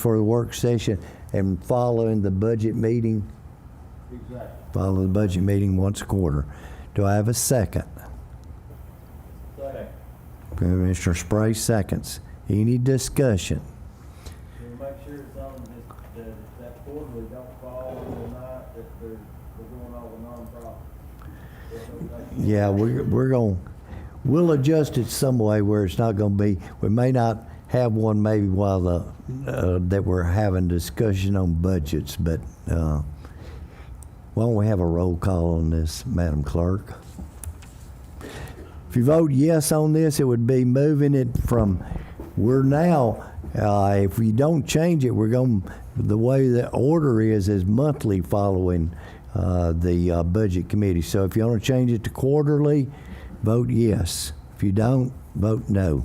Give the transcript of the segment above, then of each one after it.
for the work session and following the budget meeting? Exactly. Follow the budget meeting once a quarter. Do I have a second? Commissioner Spray seconds. Any discussion? We'll make sure it's on this, the- that quarterly, don't fall on the night that they're, we're going over nonprofit. Yeah, we're, we're going, we'll adjust it some way where it's not going to be, we may not have one maybe while the, uh, that we're having discussion on budgets, but uh, why don't we have a roll call on this, Madam Clerk? If you vote yes on this, it would be moving it from, we're now, uh, if we don't change it, we're going, the way the order is, is monthly following uh, the uh, Budget Committee. So if you want to change it to quarterly, vote yes. If you don't, vote no.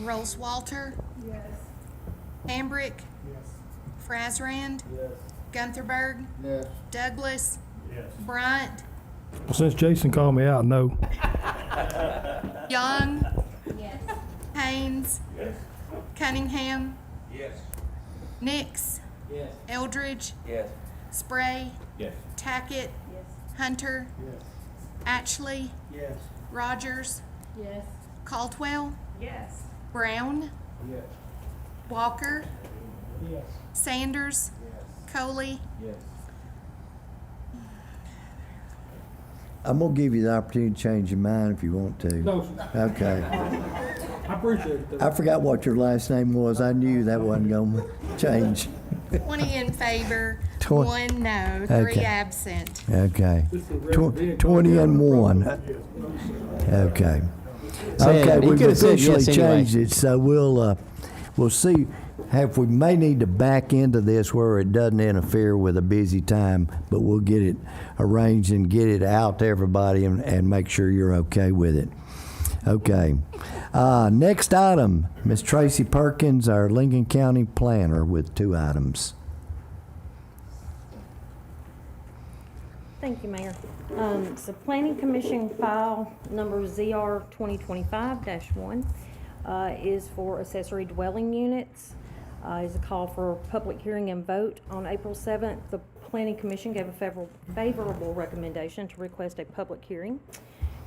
Rolls Walter. Yes. Hambrick. Yes. Frazrand. Yes. Guntherberg. Yes. Douglas. Yes. Bryant. Well, since Jason called me out, no. Young. Yes. Haynes. Cunningham. Yes. Nix. Yes. Eldridge. Yes. Spray. Yes. Tackett. Hunter. Yes. Ashley. Yes. Rogers. Yes. Caldwell. Yes. Brown. Yes. Walker. Yes. Sanders. Coley. Yes. I'm going to give you the opportunity to change your mind if you want to. Okay. I appreciate it. I forgot what your last name was. I knew that wasn't going to change. 20 in favor, Twen- one no, three Okay. absent. Okay. Tw- 20 and 1. Okay. Said- Okay, he we've could've said officially yes anyway. changed it, so we'll, uh, we'll see if we may need to back into this where it doesn't interfere with a busy time, but we'll get it arranged and get it out to everybody and, and make sure you're okay with it. Okay. Uh, Next item, Ms. Tracy Perkins, our Lincoln County Planner, with two items. Thank you, Mayor. Um, It's the Planning Commission file number ZR 2025-1 uh, is for accessory dwelling units. Uh, Is a call for public hearing and vote. On April 7th, the Planning Commission gave a favor- favorable recommendation to request a public hearing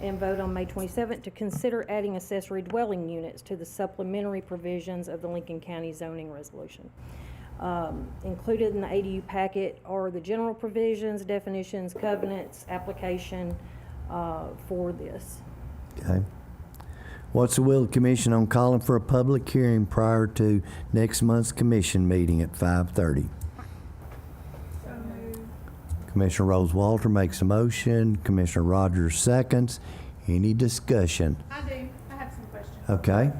and vote on May 27th to consider adding accessory dwelling units to the supplementary provisions of the Lincoln County zoning resolution. Um, Included in the ADU packet are the general provisions, definitions, covenants, application uh, for this. Okay. What's the will of the commission on calling for a public hearing prior to next month's commission meeting at 5:30? Commissioner Rose Walter makes a motion, Commissioner Rogers seconds. Any discussion? I do. I have some questions. Okay,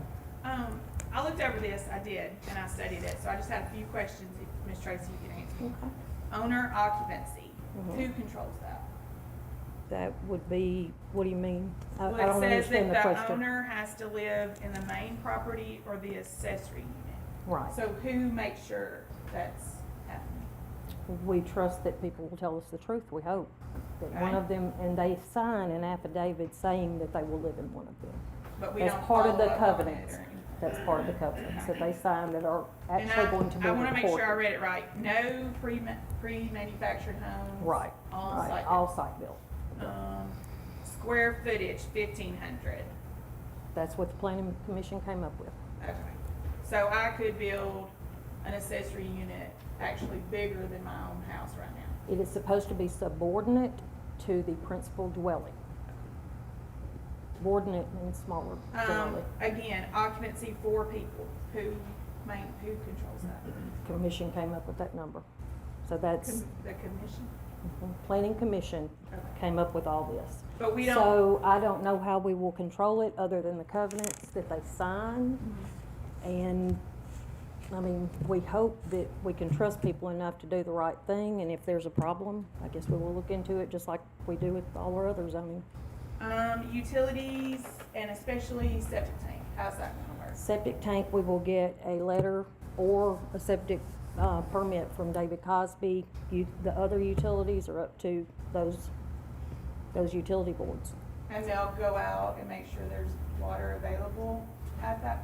Um, I looked over this, I did, and I studied it, so I just had a few questions, if Ms. Tracy, you can answer. Owner occupancy, Mm-hmm. who controls that? That would be, what do you mean? I I Well, it don't says understand that the the question. owner has to live in the main property or the accessory unit. Right. So who makes sure that's happening? We trust that people will tell us the truth, we hope. That one Right. of them, and they sign an affidavit saying that they will live in one of them. But we That's don't part of follow the up on it or covenants. anything. That's part of the covenants that they sign that are And actually going to be I, I wanna make sure I recorded. read it right. No pre, pre-manufactured homes. Right, On right, site. all site built. Um, square footage, fifteen hundred. That's what the planning commission came up with. Okay, so I could build an accessory unit actually bigger than my own house right now. It is supposed to be subordinate to the principal dwelling. Subordinate means smaller Um, dwelling. again, occupancy for people, who main, who controls Mm-hmm. that? Commission came up with that number. So that's, Com- The commission? planning commission came up with all this. But we So I don't know how we will control it, other than the covenants that they sign. And, I mean, we hope that we can trust people enough to do the right thing, and if there's a problem, I guess we will look into it, just like we do with all our other zoning. Um, utilities and especially septic tank, how's that gonna work? Septic tank, we will get a letter or a septic uh, permit from David Cosby. You- The other utilities are up to those, those utility boards. and they'll go out and make sure there's water available at that